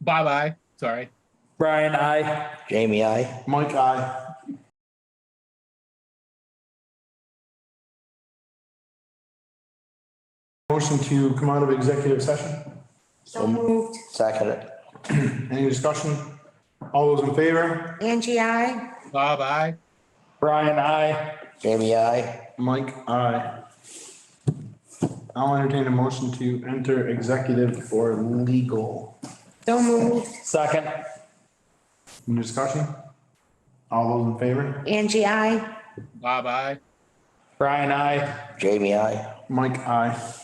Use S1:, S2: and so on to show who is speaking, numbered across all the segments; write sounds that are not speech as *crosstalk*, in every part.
S1: Bob, I, sorry.
S2: Brian, I.
S3: Jamie, I.
S4: Mike, aye. Motion to come out of executive session.
S5: So moved.
S3: Second it.
S4: Any discussion? All those in favor?
S5: Angie, I.
S1: Bob, I.
S2: Brian, I.
S3: Jamie, I.
S4: Mike, aye. I'll entertain a motion to enter executive for legal.
S5: So moved.
S2: Second.
S4: Any discussion? All those in favor?
S5: Angie, I.
S1: Bob, I.
S2: Brian, I.
S3: Jamie, I.
S4: Mike, aye.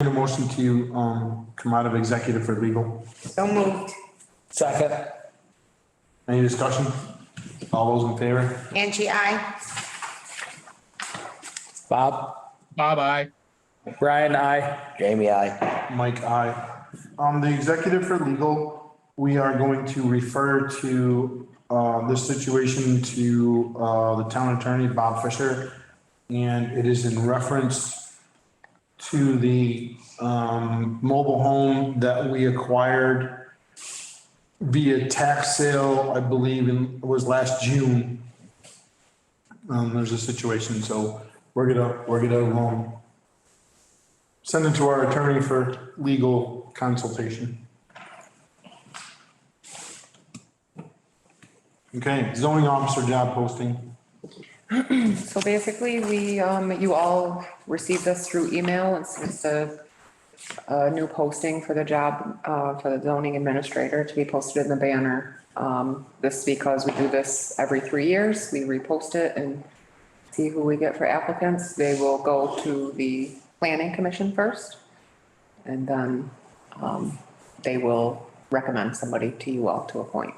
S4: Need a motion to, um, come out of executive for legal.
S5: So moved.
S2: Second.
S4: Any discussion? All those in favor?
S5: Angie, I.
S2: Bob.
S1: Bob, I.
S2: Brian, I.
S3: Jamie, I.
S4: Mike, aye. Um, the executive for legal, we are going to refer to, uh, this situation to, uh, the town attorney, Bob Fisher. And it is in reference to the, um, mobile home that we acquired via tax sale, I believe, in, was last June. Um, there's a situation, so we're gonna, we're gonna, um, send it to our attorney for legal consultation. Okay, zoning officer job posting.
S6: So basically, we, um, you all received this through email. It's, it's a, a new posting for the job, uh, for the zoning administrator to be posted in the banner. Um, this because we do this every three years. We repost it and see who we get for applicants. They will go to the planning commission first. And then, um, they will recommend somebody to you all to appoint.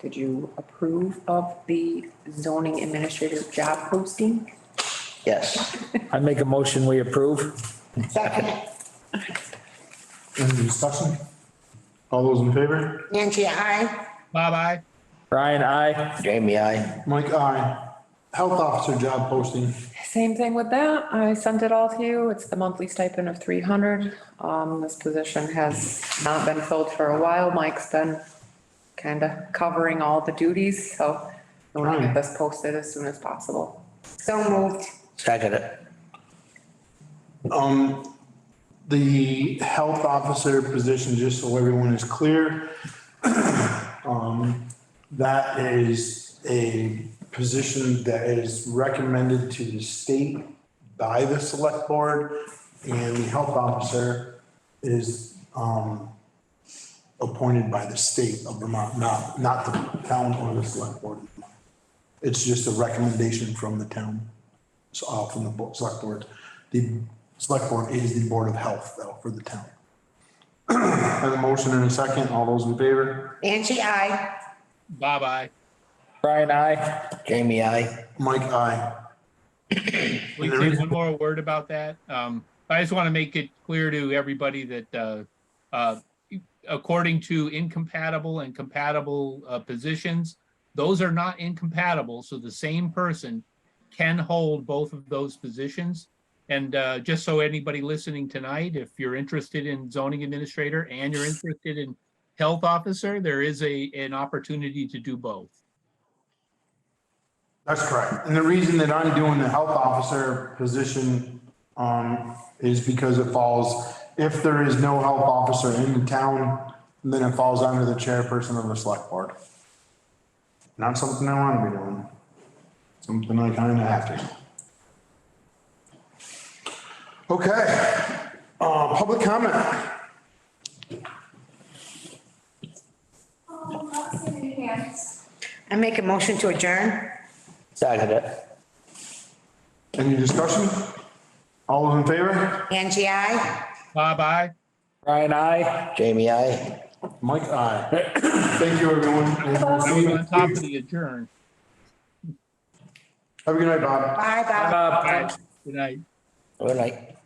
S6: Did you approve of the zoning administrative job posting?
S3: Yes.
S2: I make a motion, we approve.
S5: Second.
S4: Any discussion? All those in favor?
S5: Angie, I.
S1: Bob, I.
S2: Brian, I.
S3: Jamie, I.
S4: Mike, aye. Health officer job posting.
S6: Same thing with that. I sent it all to you. It's the monthly stipend of three hundred. Um, this position has not been filled for a while. Mike's been kind of covering all the duties, so I want to get this posted as soon as possible.
S5: So moved.
S3: Second it.
S4: Um, the health officer position, just so everyone is clear, *clears throat* um, that is a position that is recommended to the state by the select board. And the health officer is, um, appointed by the state of Vermont, not, not the town or the select board. It's just a recommendation from the town. So uh, from the bo- select board. The select board is the board of health though for the town. Have a motion and a second. All those in favor?
S5: Angie, I.
S1: Bob, I.
S2: Brian, I.
S3: Jamie, I.
S4: Mike, aye.
S1: We
S4: There
S1: say
S4: is-
S1: one more word about that. Um, I just want to make it clear to everybody that, uh, uh, according to incompatible and compatible, uh, positions, those are not incompatible, so the same person can hold both of those positions. And, uh, just so anybody listening tonight, if you're interested in zoning administrator and you're interested in health officer, there is a, an opportunity to do both.
S4: That's correct. And the reason that I'm doing the health officer position um is because it falls, if there is no health officer in the town, then it falls under the chairperson of the select board. Not something I want to be doing. Something I kind of have to. Okay, uh, public comment.
S5: I make a motion to adjourn.
S3: Second it.
S4: Any discussion? All those in favor?
S5: Angie, I.
S1: Bob, I?
S2: Brian, I.
S3: Jamie, I.
S4: Mike, aye. Thank you, everyone. And we'll
S1: I
S4: see
S1: was
S4: you-
S1: on top of the adjourn.
S4: Have a good night, Bob.
S5: Bye, bye.
S2: Bob. Uh,
S1: All right, Good night.
S3: Good night.